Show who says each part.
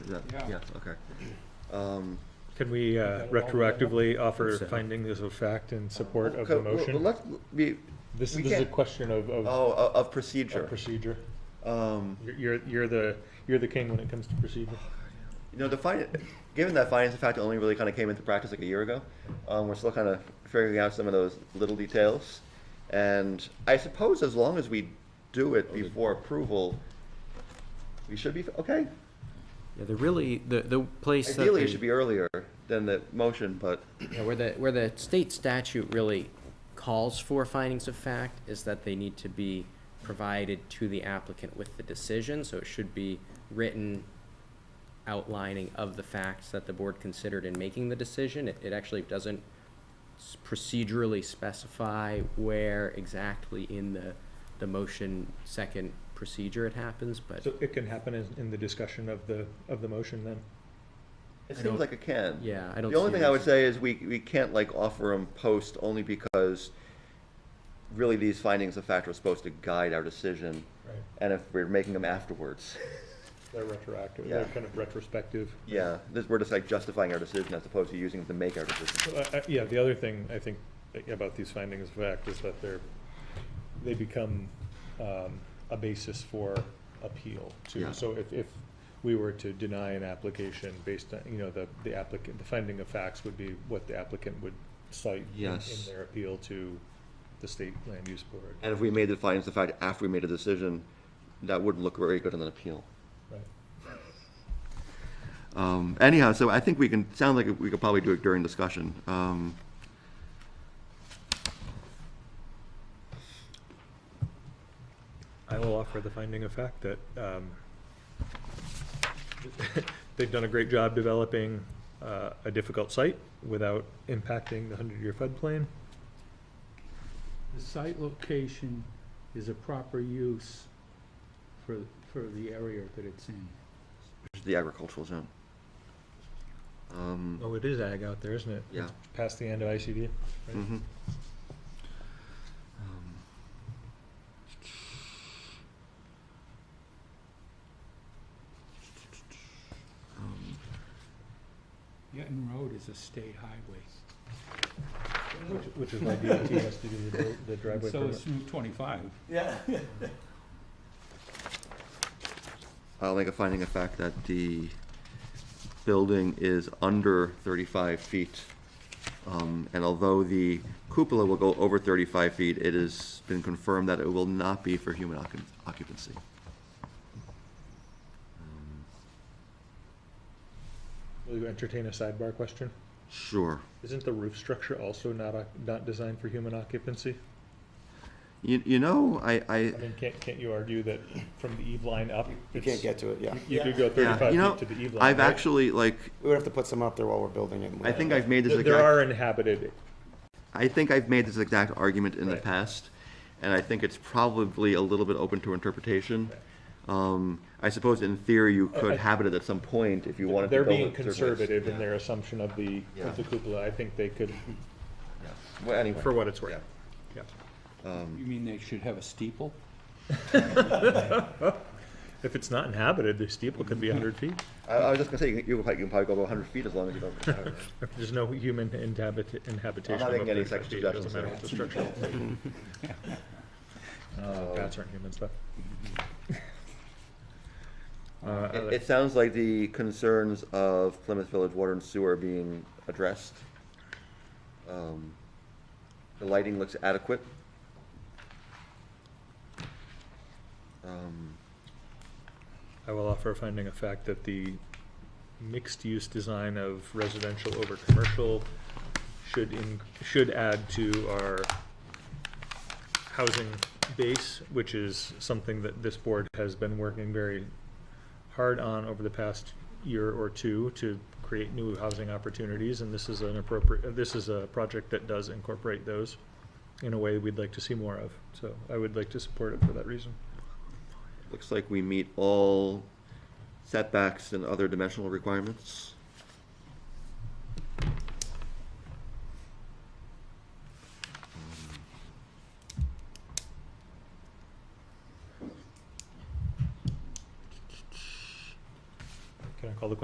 Speaker 1: Yeah,
Speaker 2: Yeah.
Speaker 1: yeah, okay. Um,
Speaker 3: Can we uh, retroactively offer findings of fact in support of
Speaker 1: Uh, okay,
Speaker 3: the
Speaker 1: well, well,
Speaker 3: motion?
Speaker 1: let- we-
Speaker 3: This
Speaker 1: we
Speaker 3: this is a
Speaker 1: can't-
Speaker 3: question of, of- of
Speaker 1: oh, o- of procedure.
Speaker 3: procedure.
Speaker 1: Um,
Speaker 3: You're- You're, you're the, you're the king when it comes to procedure.
Speaker 1: You know, the fin- given that finance in fact only really kind of came into practice like a year ago, um, we're still kind of figuring out some of those little details. And I suppose as long as we do it before approval, we should be, f- okay?
Speaker 4: Yeah, the really, the, the place that
Speaker 1: Ideally, it
Speaker 4: the-
Speaker 1: should be earlier than the motion, but
Speaker 4: Yeah, where the, where the state statute really calls for findings of fact is that they need to be provided to the applicant with the decision, so it should be written outlining of the facts that the board considered in making the decision. It, it actually doesn't s- procedurally specify where exactly in the, the motion second procedure it happens, but,
Speaker 3: So it can happen in, in the discussion of the, of the motion then?
Speaker 1: it
Speaker 4: don't-
Speaker 1: seems like it can.
Speaker 4: yeah, I don't
Speaker 1: The only
Speaker 4: see a
Speaker 1: thing I would
Speaker 4: reason.
Speaker 1: say is we, we can't like offer them post only because really these findings of fact are supposed to guide our decision.
Speaker 3: Right.
Speaker 1: And if we're making them afterwards.
Speaker 3: They're retroactive, they're
Speaker 1: Yeah.
Speaker 3: kind of retrospective.
Speaker 1: Yeah, this, we're just like justifying our decision as opposed to using it to make our decision.
Speaker 3: Well, I- I- Yeah, the other thing I think about these findings of fact is that they're, they become um, a basis for appeal
Speaker 1: Yeah.
Speaker 3: too. So if, if we were to deny an application based on, you know, the, the applicant, the finding of facts would be what the applicant would cite in-
Speaker 1: Yes.
Speaker 3: in their appeal to the state land use board.
Speaker 1: And if we made the findings of fact after we made a decision, that wouldn't look very good on an appeal.
Speaker 3: Right.
Speaker 1: Um, anyhow, so I think we can, sound like we could probably do it during discussion. Um,
Speaker 3: I will offer the finding of fact that um, they've done a great job developing uh, a difficult site without impacting the 100-year floodplain.
Speaker 5: The site location is a proper use for, for the area that it's in.
Speaker 1: the agricultural zone. Um,
Speaker 3: Oh, it is ag out there, isn't it?
Speaker 1: yeah.
Speaker 3: It's Past the end of ICD. right?
Speaker 1: mhm. Um, Um,
Speaker 5: Yetton Road is a state highway.
Speaker 3: Which- Which is why DOT has to do the dri- the
Speaker 5: And
Speaker 3: driveway
Speaker 5: So
Speaker 3: permit.
Speaker 5: is Route twenty-five.
Speaker 1: I'll make a finding of fact that the building is under 35 feet. Um, And although the cupola will go over 35 feet, it has been confirmed that it will not be for human occup- occupancy. Um,
Speaker 3: Will you entertain a sidebar question?
Speaker 1: Sure.
Speaker 3: Isn't the roof structure also not, oc- not designed for human occupancy?
Speaker 1: You you know, I, I,
Speaker 3: I mean, can't, can't you argue that from the eve line up?
Speaker 6: You
Speaker 3: it's-
Speaker 6: can't get to it, yeah.
Speaker 3: You could go
Speaker 1: yeah, you know,
Speaker 3: thirty-five feet to the eve line.
Speaker 1: I've
Speaker 3: right?
Speaker 1: actually, like,
Speaker 6: We would have to put some up there while we're building it. and
Speaker 1: I think I've made this
Speaker 3: There
Speaker 1: exact.
Speaker 3: there are inhabited
Speaker 1: I think I've made this exact argument in the
Speaker 3: Right.
Speaker 1: past, and I think it's probably a little bit open to interpretation. Um, I suppose in theory, you
Speaker 3: Uh, I-
Speaker 1: could habit it at some point if you wanted to
Speaker 3: They're
Speaker 1: build it.
Speaker 3: being
Speaker 1: certain ways.
Speaker 3: conservative in their assumption of the,
Speaker 1: Yeah.
Speaker 3: of the cupola. I think they could,
Speaker 1: Yeah. Well, anyway.
Speaker 3: for what it's worth. Yeah.
Speaker 5: You mean they should have a steeple?
Speaker 3: If it's not inhabited, the steeple could be hundred feet.
Speaker 1: I, I was just gonna say, you can- you can probably, you can probably go about hundred feet as long as you don't.
Speaker 3: There's no human inhabit- inhabitation.
Speaker 1: making
Speaker 3: above
Speaker 1: any
Speaker 3: 35
Speaker 1: such
Speaker 3: feet. It Doesn't
Speaker 1: suggestions
Speaker 3: matter what the structure. looks like. Uh, Bats aren't humans, though. Uh, I
Speaker 1: It,
Speaker 3: like-
Speaker 1: it sounds like the concerns of Plymouth Village Water and Sewer are being addressed. Um, The lighting looks adequate. Um,
Speaker 3: I will offer a finding of fact that the mixed-use design of residential over commercial should in, should add to our housing base, which is something that this board has been working very hard on over the past year or two to create new housing opportunities, and this is an appropriate, this is a project that does incorporate those in a way we'd like to see more of, so I would like to support it for that reason.
Speaker 1: Looks like we meet all setbacks and other dimensional requirements.